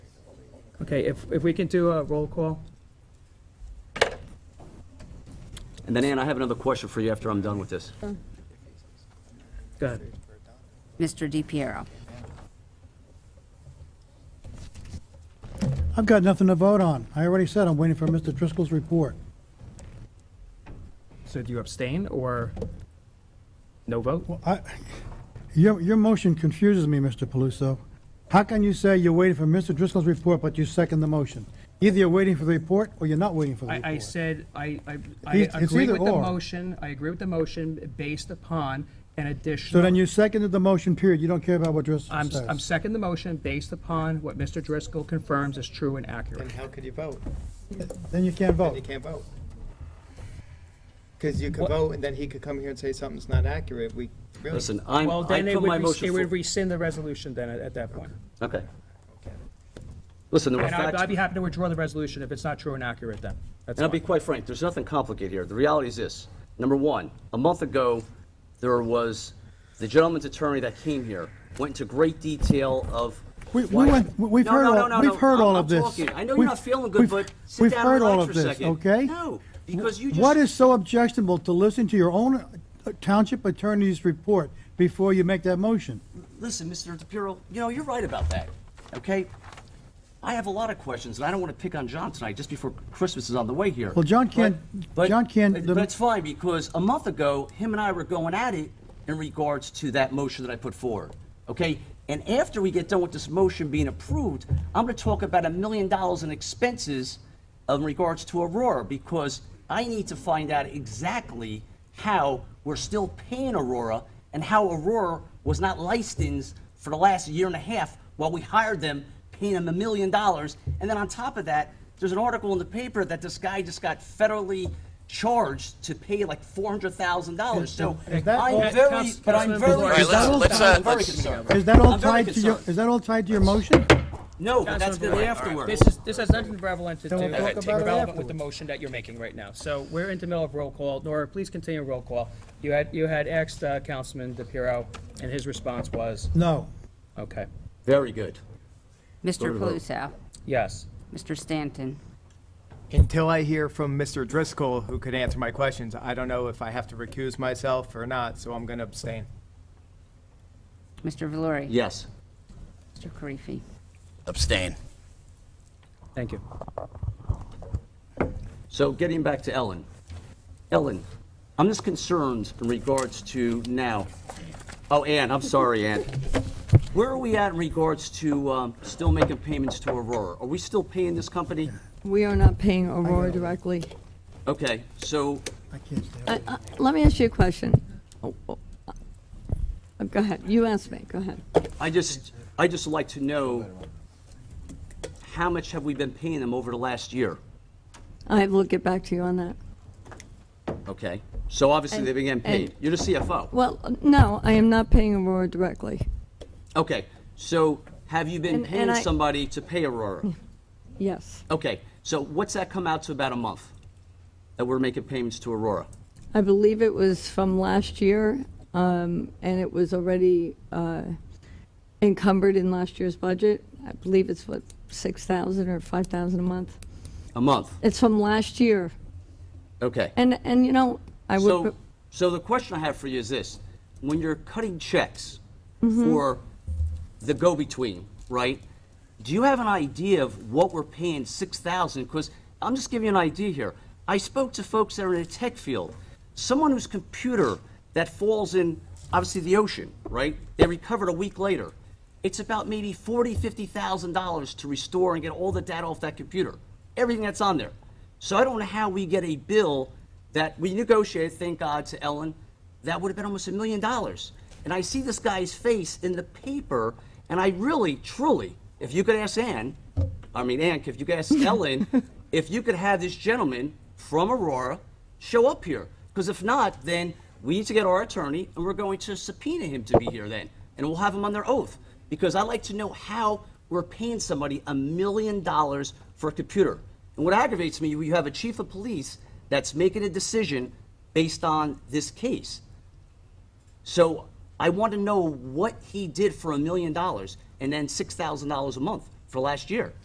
Okay, if, if we can do a roll call, And then, Ann, I have another question for you after I'm done with this. go ahead. Mr. DiPiero. I've got nothing to vote on. I already said I'm waiting for Mr. Driscoll's report. So do you abstain or no vote? Well, I, your, your motion confuses me, Mr. Paluso. How can you say you're waiting for Mr. Driscoll's report, but you second the motion? Either you're waiting for the report, or you're not waiting for the I, I report. said, I, I, I It's- it's agree either with the or. motion, I agree with the motion based upon an additional. So then you seconded the motion, period. You don't care about what Driscoll I'm, says. I'm second the motion based upon what Mr. Driscoll confirms is true and accurate. Then how could you vote? Then you can't Then you vote. can't vote. Because you could What- vote, and then he could come here and say something's not accurate, we, really. Listen, I'm, Well, I then it put would, my res- motion it would for... rescind the resolution then at, at that point. Okay. Listen, there were And I'd, I'd facts, be happy to withdraw the resolution if it's not true and accurate then. That's and I'll be fine. quite frank, there's nothing complicated here. The reality is this. Number one, a month ago, there was the gentleman's attorney that came here, went into great detail of We, we why... went, we- we've No, heard no, no, all, no, we've no. heard I'm- all I'm of this. talking. I know you're We've- not feeling good, we've- but sit we've down heard and all relax of for a this, second. Okay? No, because you just... What is so objectionable to listen to your own uh, township attorney's report before you make that motion? Listen, Mr. DePiero, you know, you're right about that, okay? I have a lot of questions, and I don't want to pick on John tonight, just before Christmas is on the way here. Well, John can't- But- John can't- But it's fine, because a month ago, him and I were going at it in regards to that motion that I put forward, okay? And after we get done with this motion being approved, I'm going to talk about a million dollars in expenses in regards to Aurora, because I need to find out exactly how we're still paying Aurora and how Aurora was not licensed for the last year and a half while we hired them, paying them a million dollars. And then on top of that, there's an article in the paper that this guy just got federally charged to pay like four hundred thousand dollars. So Is that all- I'm very, but I'm very, All right, let's- concerned. let's, uh, I'm very let's- concerned. Is that all I'm very tied to your, concerned. is that all tied to your motion? No, but that's gonna be This afterwards. is, this has nothing relevant to do, Then we'll talk about it relevant with the afterwards. motion that you're making right now. So we're in the middle of roll call. Nora, please continue roll call. You had, you had asked uh, Councilman DePiero, and his response was, No. okay, Very good. Mr. Paluso. yes. Mr. Stanton. Until I hear from Mr. Driscoll, who could answer my questions, I don't know if I have to recuse myself or not, so I'm gonna abstain. Mr. Valori. Yes. Mr. Karifi. Abstain. Thank you. So getting back to Ellen. Ellen, I'm just concerned in regards to now. Oh, Ann, I'm sorry, Ann. Where are we at in regards to um, still making payments to Aurora? Are we still paying this company? We are not paying Aurora directly. Okay, so, I can't stand Uh, it. uh, Let me ask you a question. Uh, Go ahead, you ask me, go ahead. I just, I just like to know, how much have we been paying them over the last year? I will get back to you on that. Okay, so obviously they've been getting paid. And- You're the CFO. Well, uh, no, I am not paying Aurora directly. Okay, so have you been And- and paying I- somebody to pay Aurora? Yes, Okay, so what's that come out to about a month that we're making payments to Aurora? I believe it was from last year, um, and it was already uh, encumbered in last year's budget. I believe it's what, 6,000 or 5,000 a month? A month, It's from last year, okay. and, and you know, I would. So, pro- so the question I have for you is this. When you're cutting checks Mm-hmm. for the go-between, right? Do you have an idea of what we're paying six thousand? Because I'm just giving you an idea here. I spoke to folks that are in the tech field. Someone whose computer that falls in obviously the ocean, right? They recovered a week later. It's about maybe forty, fifty thousand dollars to restore and get all the data off that computer, everything that's on there. So I don't know how we get a bill that we negotiated, thank God, to Ellen, that would have been almost a million dollars. And I see this guy's face in the paper, and I really, truly, if you could ask Ann, I mean, Ann, if you could ask Ellen, if you could have this gentleman from Aurora show up here. Because if not, then we need to get our attorney, and we're going to subpoena him to be here then. And we'll have him on their oath. Because I'd like to know how we're paying somebody a million dollars for a computer. And what aggravates me, you have a chief of police that's making a decision based on this case. So I want to know what he did for a million dollars and then $6,000 a month for last year.